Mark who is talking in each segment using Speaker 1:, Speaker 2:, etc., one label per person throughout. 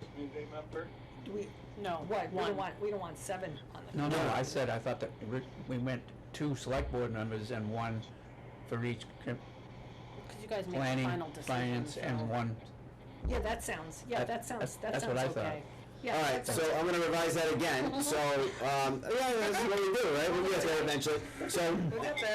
Speaker 1: community member?
Speaker 2: Do we,
Speaker 3: No,
Speaker 2: what, we
Speaker 3: one.
Speaker 2: don't want, we don't want seven on the.
Speaker 4: No, no, I said, I thought that we we went two select board members and one for each com-
Speaker 3: Because you guys make the
Speaker 4: planning,
Speaker 3: final decision.
Speaker 4: finance,
Speaker 3: so-
Speaker 4: and one.
Speaker 2: Yeah, that sounds, yeah,
Speaker 4: That-
Speaker 2: that sounds, that
Speaker 4: that's
Speaker 2: sounds
Speaker 4: what I thought.
Speaker 2: okay. Yeah,
Speaker 5: All right,
Speaker 2: that
Speaker 5: so
Speaker 2: sounds-
Speaker 5: I'm gonna revise that again, so, um, yeah, that's what we do, right? We get there eventually. So,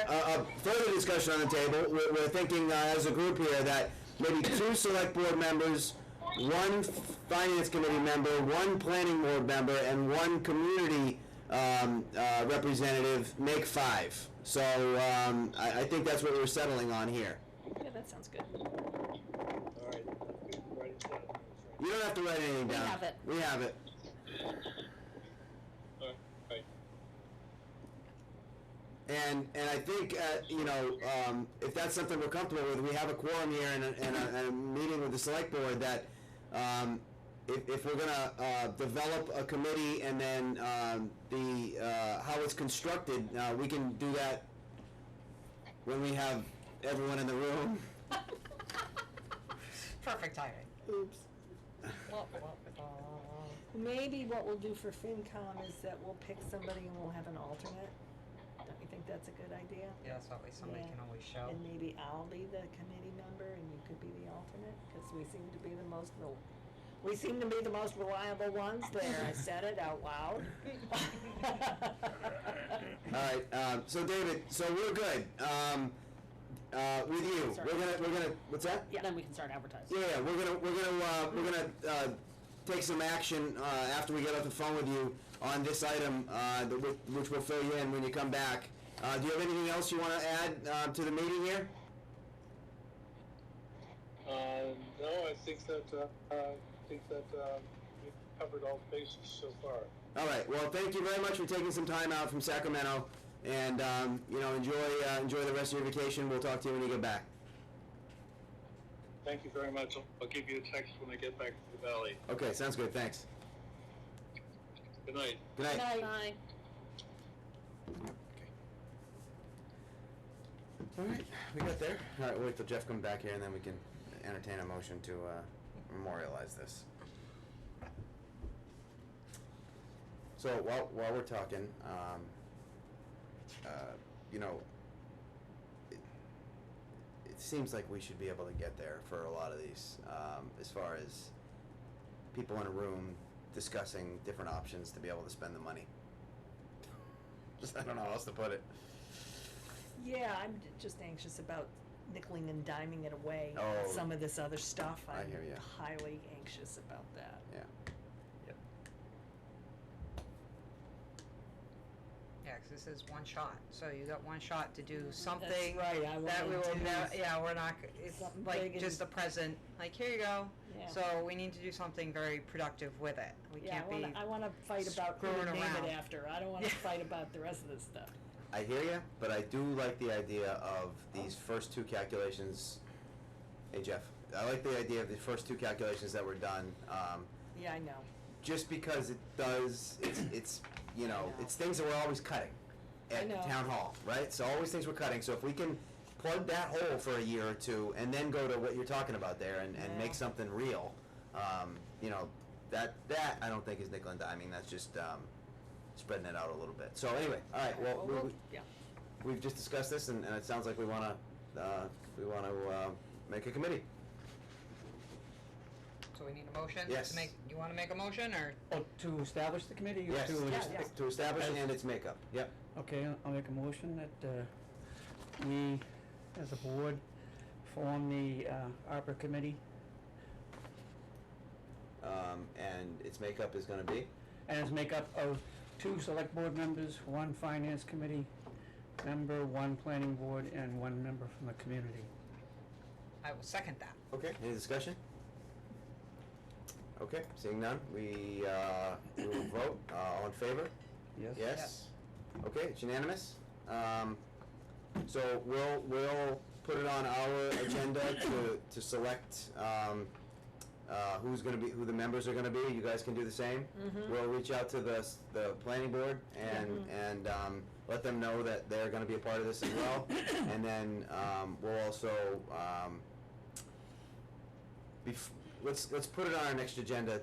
Speaker 5: uh, uh, further discussion on the table, we're, we're thinking, uh, as a group here, that maybe two select board members, one finance committee member, one planning board member, and one community, um, uh, representative, make five. So, um, I, I think that's what we're settling on here.
Speaker 2: Yeah, that sounds good.
Speaker 1: All right, good, write it down. All
Speaker 5: You don't have to write anything
Speaker 3: We
Speaker 5: down.
Speaker 3: have it.
Speaker 5: We have it.
Speaker 1: right, Right,
Speaker 5: And, and I think, uh, you know, um, if that's something we're comfortable with, we have a quorum here and a, and a, and a meeting with the select board that, um, if, if we're gonna, uh, develop a committee and then, um, the, uh, how it's constructed, uh, we can do that when we have everyone in the room.
Speaker 6: Perfect timing.
Speaker 2: Oops.
Speaker 6: Wah, wah, wah.
Speaker 2: Maybe what we'll do for FinCom is that we'll pick somebody and we'll have an alternate. Don't you think that's a good idea?
Speaker 6: Yeah, so at least somebody
Speaker 2: Yeah.
Speaker 6: can always show.
Speaker 2: And maybe I'll be the committee member and you could be the alternate, because we seem to be the most, rel- we seem to be the most reliable ones there. I said it out loud.
Speaker 5: Alright, um, so David, so we're good, um, uh, with you, we're gonna, we're gonna, what's that?
Speaker 3: Yeah, then we can start advertising.
Speaker 5: Yeah, we're gonna, we're gonna, uh, we're gonna, uh, take some action, uh, after we get off the phone with you on this item, uh, the, which, which will fill you in when you come back. Uh, do you have anything else you wanna add, uh, to the meeting here?
Speaker 1: Uh, no, I think that, uh, I think that, um, we've covered all bases so far.
Speaker 5: All right, well, thank you very much for taking some time out from Sacramento, and, um, you know, enjoy, uh, enjoy the rest of your vacation, we'll talk to you when you get back.
Speaker 1: Thank you very much. I'll- I'll give you a text when I get back to the valley.
Speaker 5: Okay, sounds good, thanks.
Speaker 1: Good night.
Speaker 5: Good night.
Speaker 3: Bye.
Speaker 5: All right, we got there. All right, we'll wait till Jeff comes back here, and then we can entertain a motion to uh, memorialize this. So while while we're talking, um, uh, you know, it, it seems like we should be able to get there for a lot of these, um, as far as people in a room discussing different options to be able to spend the money. Just I don't know how else to put it.
Speaker 2: Yeah, I'm j- just anxious about nickeling and diming it away,
Speaker 5: Oh.
Speaker 2: some of this other stuff.
Speaker 5: I hear ya.
Speaker 2: I'm highly anxious about that.
Speaker 5: Yeah.
Speaker 6: Yeah, 'cause this is one shot, so you got one shot to do
Speaker 2: That's
Speaker 6: something
Speaker 2: right, I
Speaker 6: that we
Speaker 2: will
Speaker 6: will
Speaker 2: do.
Speaker 6: never, yeah, we're not, g- it's
Speaker 2: Something big
Speaker 6: like
Speaker 2: and-
Speaker 6: just a present, like, here you go.
Speaker 2: Yeah.
Speaker 6: So we need to do something very productive with it. We
Speaker 2: Yeah,
Speaker 6: can't
Speaker 2: I
Speaker 6: be,
Speaker 2: wanna, I wanna fight about who to
Speaker 6: screwing
Speaker 2: name
Speaker 6: around.
Speaker 2: it after. I don't wanna
Speaker 6: Yeah.
Speaker 2: fight about the rest of this stuff.
Speaker 5: I hear you, but I do like the idea of these first two calculations. Hey Jeff, I like the idea of the first two calculations that were done. Um,
Speaker 2: Yeah, I know.
Speaker 5: just because it does, it's, it's you know,
Speaker 2: know.
Speaker 5: it's things that we're always cutting
Speaker 2: I
Speaker 5: at
Speaker 2: know.
Speaker 5: town hall, right? So always things we're cutting. So if we can plug that hole for a year or two and then go to what you're talking about there and, and
Speaker 2: Yeah.
Speaker 5: make something real, um, you know, that that I don't think is nickel and diming. That's just um, spreading it out a little bit. So anyway, all right. Well,
Speaker 2: Well,
Speaker 5: we-
Speaker 2: we'll-
Speaker 5: we-
Speaker 2: yeah.
Speaker 5: we've just discussed this, and, and it sounds like we want to uh, we want to uh, make a committee.
Speaker 6: so we need a motion
Speaker 5: Yes.
Speaker 6: to make, you wanna make a motion or?
Speaker 4: Oh, to establish the committee or
Speaker 5: Yes.
Speaker 4: to?
Speaker 2: Yeah,
Speaker 4: just-
Speaker 2: yeah.
Speaker 5: To establish and its makeup. Yep.
Speaker 4: Okay, I'll- I'll make a motion that uh, we, as a board, form the uh, ARPA committee,
Speaker 5: Um, and its makeup is going to be.
Speaker 4: and it's make up of two select board members, one finance committee member, one planning board, and one member from the community.
Speaker 6: I will second that.
Speaker 5: Okay. Any discussion? Okay. Seeing none, we uh, we will vote. Uh, all in favor?
Speaker 4: Yes?
Speaker 5: Yes. Okay. It's unanimous. Um, so we'll we'll put it on our agenda to to select. Um, uh, who's going to be who the members are going to be. You guys can do the same. We'll reach out to the s- the planning board and and um, let them know that they're going to be a part of this as well. and then um, we'll also um, bef- let's let's put it on our next agenda